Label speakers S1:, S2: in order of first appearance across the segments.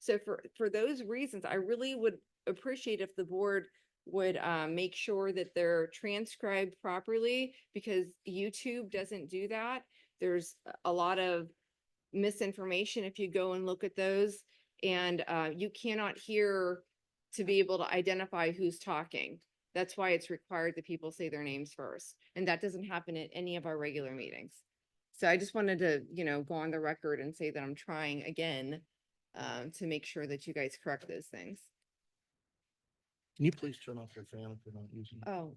S1: So for, for those reasons, I really would appreciate if the board would uh, make sure that they're transcribed properly because YouTube doesn't do that. There's a- a lot of misinformation if you go and look at those. And uh, you cannot hear to be able to identify who's talking. That's why it's required that people say their names first. And that doesn't happen at any of our regular meetings. So I just wanted to, you know, go on the record and say that I'm trying again
S2: Uh-huh.
S1: um, to make sure that you guys correct those things.
S3: Can you please turn off your fan if you're not using it?
S1: Oh,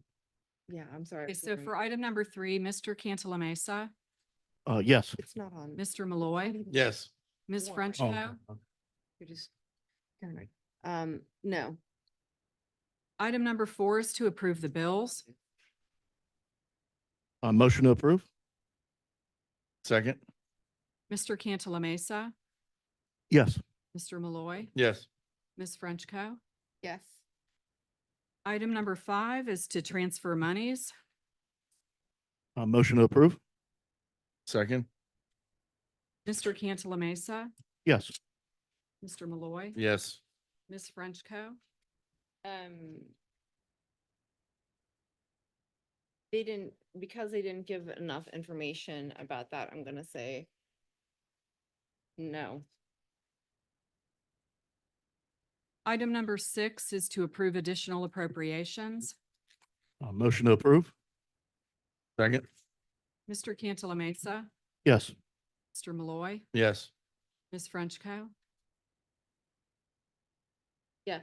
S1: yeah, I'm sorry. I
S2: Mm-hmm. Okay,
S1: was
S2: so
S1: looking-
S2: for item number three, Mr. Cantala Mesa,
S3: Uh, yes.
S1: It's not on.
S2: Mr. Malloy,
S3: Yes.
S2: Ms.
S1: Warren.
S3: Oh, okay.
S2: Frenchco.
S1: You're just, never mind. Um, no.
S2: Item number four is to approve the bills.
S3: Uh, motion to approve? Second?
S2: Mr. Cantala Mesa,
S3: Yes.
S2: Mr. Malloy,
S3: Yes.
S2: Ms. Frenchco.
S1: Yes.
S2: Item number five is to transfer monies.
S3: Uh, motion to approve? Second?
S2: Mr. Cantala Mesa,
S3: Yes.
S2: Mr. Malloy,
S3: Yes.
S2: Ms. Frenchco.
S1: Um. They didn't, because they didn't give enough information about that, I'm gonna say. No.
S2: Item number six is to approve additional appropriations.
S3: Uh, motion to approve? Second?
S2: Mr. Cantala Mesa,
S3: Yes.
S2: Mr. Malloy,
S3: Yes.
S2: Ms. Frenchco.
S1: Yes.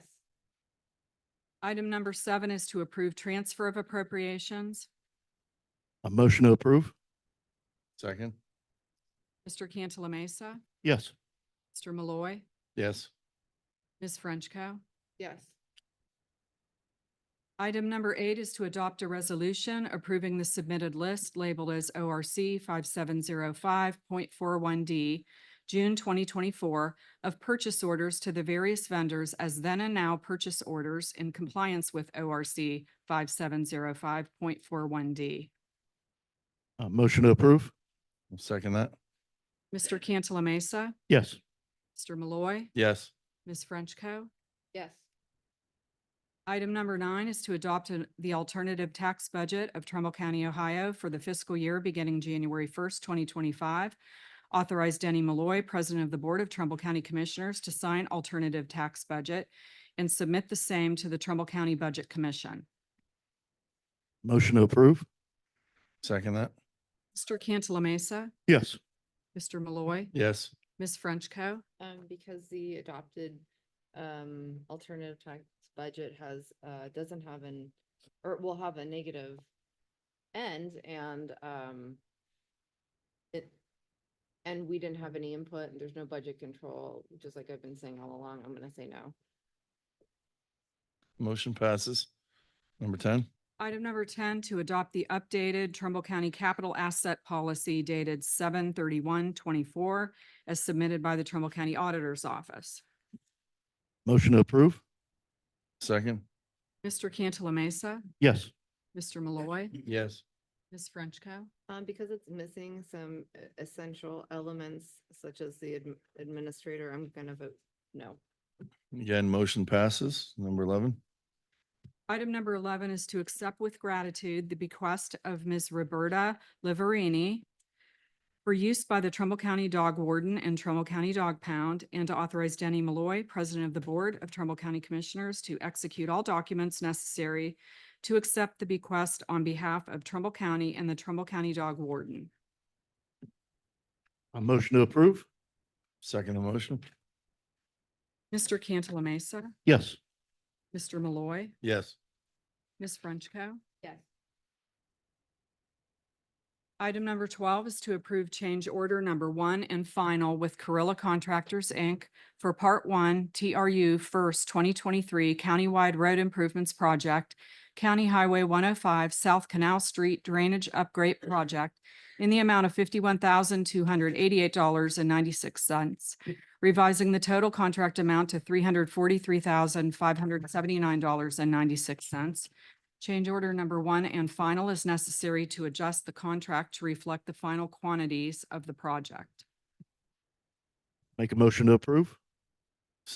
S2: Item number seven is to approve transfer of appropriations.
S3: A Uh, motion to approve? Second?
S2: Mr. Cantala Mesa,
S3: Yes.
S2: Mr. Malloy,
S3: Yes.
S2: Ms. Frenchco.
S1: Yes.
S2: Item number eight is to adopt a resolution approving the submitted list labeled as ORC five seven zero five point four one D, June twenty twenty-four, of purchase orders to the various vendors as then and now purchase orders in compliance with ORC five seven zero five point four one D.
S3: Uh, motion to approve? Second that?
S2: Mr. Cantala Mesa,
S3: Yes.
S2: Mr. Malloy,
S3: Yes.
S2: Ms. Frenchco.
S1: Yes.
S2: Item number nine is to adopt an- the alternative tax budget of Trumbull County, Ohio for the fiscal year beginning January first, twenty twenty-five. Authorize Denny Malloy, President of the Board of Trumbull County Commissioners, to sign alternative tax budget and submit the same to the Trumbull County Budget Commission.
S3: Motion to approve? Second that?
S2: Mr. Cantala Mesa,
S3: Yes.
S2: Mr. Malloy,
S3: Yes.
S2: Ms. Frenchco.
S1: Um, because the adopted, um, alternative tax budget has, uh, doesn't have an, or will have a negative end and, um, it, and we didn't have any input and there's no budget control, just like I've been saying all along, I'm gonna say no.
S3: Motion passes. Number ten?
S2: Item number ten, to adopt the updated Trumbull County Capital Asset Policy dated seven thirty-one twenty-four as submitted by the Trumbull County Auditor's Office.
S3: Motion to approve? Second?
S2: Mr. Cantala Mesa,
S3: Yes.
S2: Mr. Malloy,
S3: Yes.
S2: Ms. Frenchco.
S1: Um, because it's missing some e- essential elements such as the adm- administrator, I'm gonna vote no.
S3: Again, motion passes. Number eleven.
S2: Item number eleven is to accept with gratitude the bequest of Ms. Roberta Liverini for use by the Trumbull County Dog Warden and Trumbull County Dog Pound, and to authorize Denny Malloy, President of the Board of Trumbull County Commissioners, to execute all documents necessary to accept the bequest on behalf of Trumbull County and the Trumbull County Dog Warden.
S3: A motion to approve? Second motion?
S2: Mr. Cantala Mesa,
S3: Yes.
S2: Mr. Malloy,
S3: Yes.
S2: Ms. Frenchco.
S1: Yes.
S2: Item number twelve is to approve change order number one and final with Carrilla Contractors, Inc. for Part One TRU First Twenty Twenty-Three Countywide Road Improvements Project, County Highway one oh five South Canal Street Drainage Upgrade Project in the amount of fifty-one thousand two hundred eighty-eight dollars and ninety-six cents, revising the total contract amount to three hundred forty-three thousand five hundred seventy-nine dollars and ninety-six cents, Change order number one and final is necessary to adjust the contract to reflect the final quantities of the project.
S3: Make a motion to approve?